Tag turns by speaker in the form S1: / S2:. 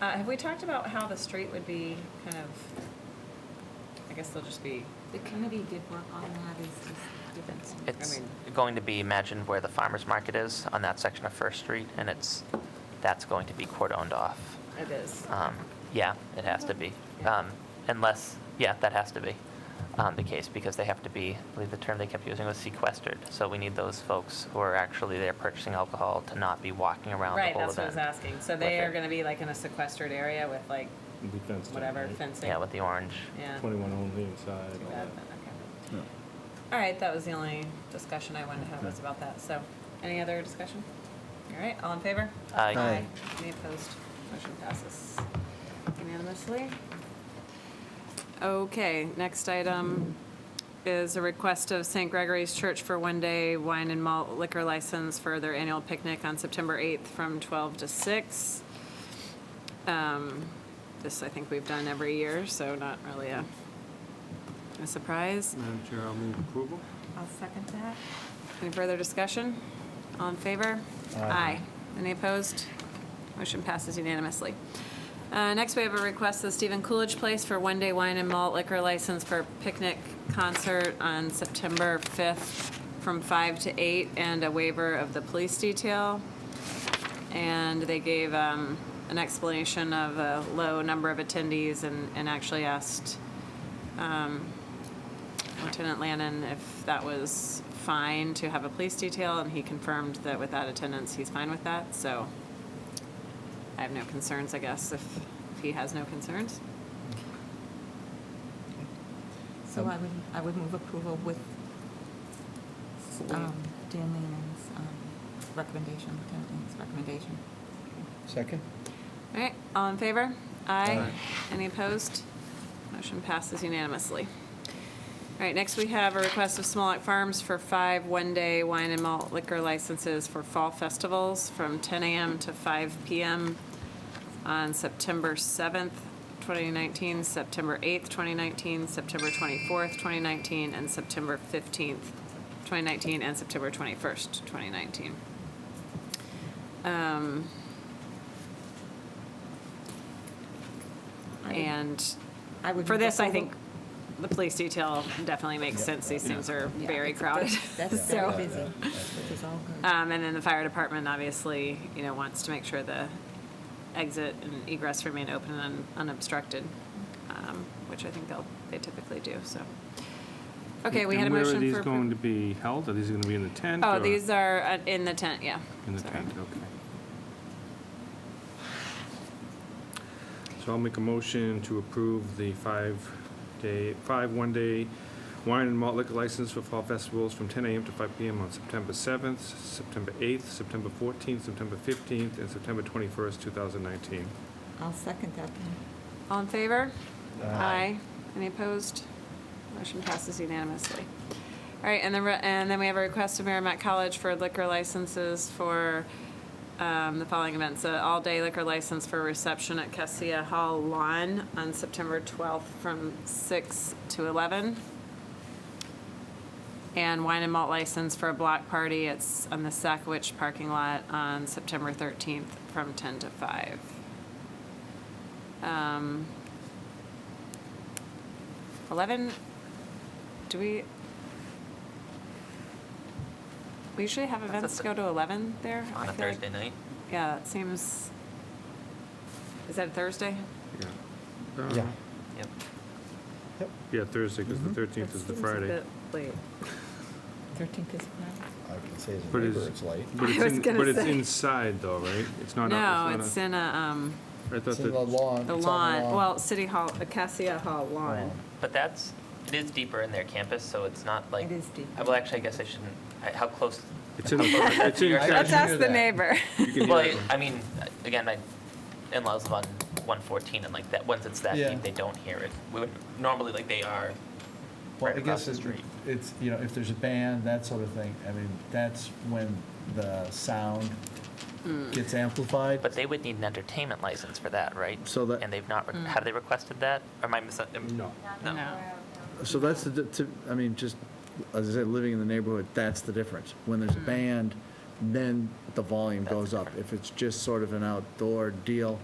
S1: Uh, have we talked about how the street would be kind of, I guess they'll just be,
S2: The committee did work on that, it's just different. things.
S3: It's
S1: mean-
S3: going to be, imagine where the farmer's market is on that section of First Street, and it's, that's going to be cordoned off.
S1: it is.
S3: Um, Yeah, it has to be. Um, Unless, yeah, that has to be um, the case, because they have to be, I believe the term they kept using was sequestered. So we need those folks who are actually there purchasing alcohol to not be walking around the
S1: Right,
S3: whole
S1: that's what I
S3: event.
S1: was asking. So they
S3: With
S1: are
S3: it.
S1: gonna be like in a sequestered area with like
S4: Be fenced in,
S1: whatever
S4: right?
S1: fencing?
S3: Yeah, with the orange.
S1: Yeah. Too
S4: Twenty-one only inside. all
S1: bad,
S4: that.
S1: then, okay. All right, that was the only discussion I wanted to have was about that. So, any other discussion? All right, all in favor?
S3: Aye.
S5: Aye.
S1: Any opposed? Motion passes unanimously. Okay, next item is a request of St. Gregory's Church for one-day wine and malt liquor license for their annual picnic on September 8th from 12 to 6. Um, This, I think we've done every year, so not really a, a surprise.
S5: Madam Chair, I'll move approval.
S1: I'll second that. Any further discussion? All in favor? Aye. Any opposed? Motion passes unanimously. Uh, Next, we have a request of Stephen Coolidge Place for one-day wine and malt liquor license for picnic concert on September 5th from 5 to 8, and a waiver of the police detail. And they gave um, an explanation of a low number of attendees and and actually asked Lieutenant Lannon if that was fine to have a police detail, and he confirmed that with that attendance, he's fine with that, so I have no concerns, I guess, if if he has no concerns.
S2: So I would, I would move approval with um, Dan Lehman's um, recommendation, Lieutenant Lehman's recommendation.
S5: Second?
S1: All right, all in favor? Aye.
S5: Aye.
S1: Any opposed? Motion passes unanimously. All right, next we have a request of Smolak Farms for five one-day wine and malt liquor licenses for fall festivals from 10 a.m. to 5 p.m. on September 7th, 2019, September 8th, 2019, September 24th, 2019, and September 15th, 2019, and September 21st, 2019. Um,
S2: I would-
S1: And
S2: I would
S1: for
S2: move
S1: this, I
S2: approval.
S1: think the police detail definitely makes sense. These things are
S2: Yeah,
S1: very
S2: it's-
S1: crowded.
S2: That's
S1: So-
S2: very busy, which is all good.
S1: Um, and then the fire department obviously, you know, wants to make sure the exit and egress remain open and un- unobstructed, um, which I think they'll, they typically do, so. Okay, we had a
S4: And
S1: motion for.
S4: Where are these
S1: appro-
S4: going to be held? Are these going to be in the tent?
S1: Oh,
S4: or
S1: these are uh, in the tent, yeah.
S4: In the
S1: Sorry.
S4: tent, okay. So I'll make a motion to approve the five-day, five one-day wine and malt liquor license for fall festivals from 10 AM to 5 PM on September 7th, September 8th, September 14th, September 15th, and September 21st, 2019.
S2: I'll second that. then.
S1: All in favor? Aye. Any opposed? Motion passes unanimously. All right, and then, and then we have a request of Merrimack College for liquor licenses for um, the following events. An all-day liquor license for reception at Cassia Hall Lawn on September 12th from 6 to 11. And wine and malt license for a block party at, s- on the Sackwich parking lot on September 13th from 10 to 5. Um, 11, do we, we usually have
S3: a
S1: events
S3: th-
S1: go to 11 there? I
S3: On a
S1: feel like-
S3: Thursday night?
S1: Yeah, that seems, is that Thursday?
S4: Yeah.
S5: Yeah.
S3: Yep.
S5: Yep.
S4: Yeah, Thursday, because the 13th is the Friday.
S1: Late.
S2: 13th is Friday.
S5: I can say as a
S4: But is-
S5: neighbor, it's late.
S4: But
S1: I
S4: it's
S1: was
S4: in-
S1: gonna
S4: But it's
S1: say.
S4: inside though, right? It's not,
S1: No,
S4: a-
S1: it's
S4: it's not
S1: in a, um,
S4: a, I thought
S5: It's in the
S4: that,
S5: lawn.
S1: the
S5: it's on the
S1: lawn, well, City Hall, Acacia Hall lawn.
S3: But that's, it is deeper in their campus, so it's not like.
S2: It is deeper.
S3: Uh, Well, actually, I guess I shouldn't, I- how close?
S4: it's in, the- it's in,
S3: Let's
S4: Cassia-
S1: Let's
S5: Let's ask
S1: ask
S5: hear
S1: the
S5: the that.
S1: neighbor.
S4: you can hear
S3: Well,
S4: it.
S3: I- I mean, again, my in-laws live on 114, and like that, once it's that
S5: Yeah.
S3: deep, they don't hear it. We would, normally, like, they are
S5: Well,
S3: right
S5: I
S3: across
S5: guess
S3: the
S5: it-
S3: street.
S5: it's, you know, if there's a band, that sort of thing, I mean, that's when the sound
S1: Hmm.
S5: gets amplified.
S3: But they would need an entertainment license for that, right?
S5: So that-
S3: And they've not, re- have they requested that? Or am I mis?
S4: No.
S3: No.
S1: Oh.
S5: So that's the, di- to, I mean, just, as I said, living in the neighborhood, that's the difference. When there's a
S1: Hmm.
S5: band, then the volume
S3: That's
S5: goes up. If it's just sort of an outdoor deal,